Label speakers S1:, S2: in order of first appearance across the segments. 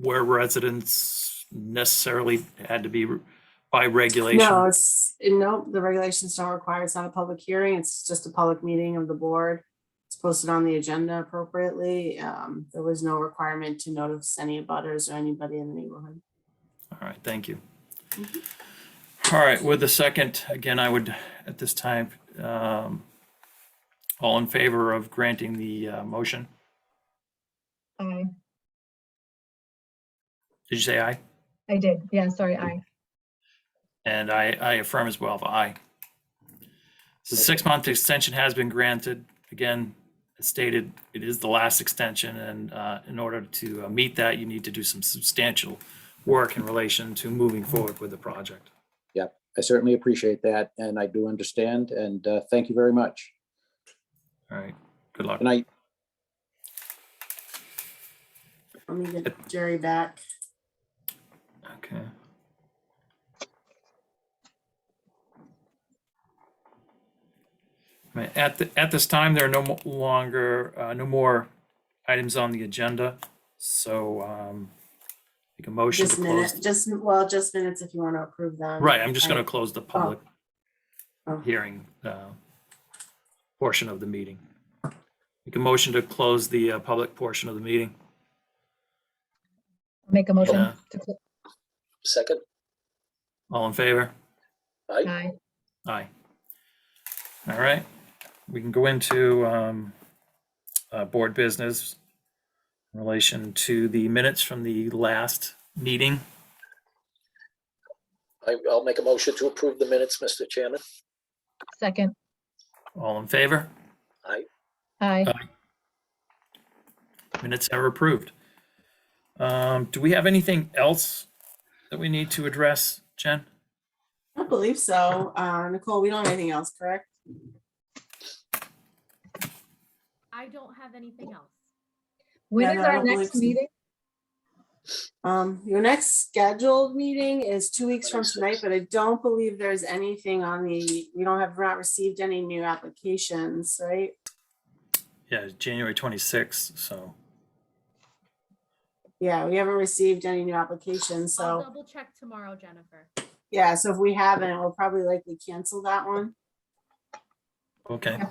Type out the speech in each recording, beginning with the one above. S1: where residents necessarily had to be re- by regulation?
S2: No, it's, no, the regulations don't require, it's not a public hearing, it's just a public meeting of the board. It's posted on the agenda appropriately. Um, there was no requirement to notice any abutters or anybody in the neighborhood.
S1: All right, thank you.
S2: Mhm.
S1: All right, with the second, again, I would, at this time, um, all in favor of granting the uh, motion?
S3: Aye,
S1: Did you say aye?
S3: I did. Yeah, sorry, aye.
S1: And I, I affirm as well, aye. So six-month extension has been granted. Again, as stated, it is the last extension, and uh, in order to uh, meet that, you need to do some substantial work in relation to moving forward with the project.
S4: I certainly appreciate that, and I do understand, and uh, thank you very much.
S1: All right, good luck.
S4: Good night.
S2: Let me get Jerry back.
S1: Okay. Right, At, the- at this time, there are no mo- longer, uh, no more items on the agenda. So um, make a motion to
S2: Just minutes,
S1: close.
S2: just, well, just minutes if you want to approve them.
S1: Right, I'm just going to close the public
S2: Oh.
S1: hearing uh, portion of the meeting. Make a motion to close the uh, public portion of the meeting.
S3: Make a motion
S1: Yeah.
S3: to, cl-
S4: Second.
S1: All in favor?
S3: aye.
S1: Aye. All right, we can go into um, uh, board business in relation to the minutes from the last meeting.
S4: I'll make a motion to approve the minutes, Mr. Chairman.
S3: Second,
S1: All in favor?
S3: aye.
S1: Minutes are approved. Um, Do we have anything else that we need to address, Jen?
S2: I don't believe so. Uh, Nicole, we don't have anything else, correct?
S5: I don't have anything else.
S3: When
S2: Yeah,
S3: is
S2: no, I
S3: our
S2: don't believe
S3: next
S2: so.
S3: meeting?
S2: Um, your next scheduled meeting is two weeks from
S4: 26.
S2: tonight, but I don't believe there's anything on the, we don't have, not received any new applications, right?
S1: Yeah, it's January 26th, so,
S2: Yeah, we haven't received any new applications,
S5: I'll
S2: so,
S5: double check tomorrow, Jennifer.
S2: yeah, so if we haven't, we'll probably likely cancel that one.
S1: okay.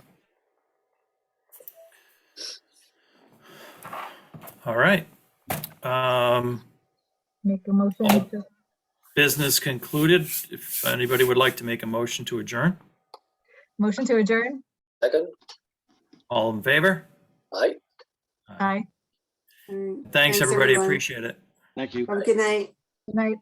S1: All right. Um,
S3: Make a motion
S1: Oh.
S3: to,
S1: business concluded. If anybody would like to make a motion to adjourn,
S3: motion to adjourn?
S4: Second.
S1: all in favor?
S4: Aye.
S3: Aye.
S2: Mm,
S1: Thanks, everybody.
S2: everyone.
S1: Appreciate it.
S6: Thank you.
S2: Have a Mm, um, good night.
S3: Good night.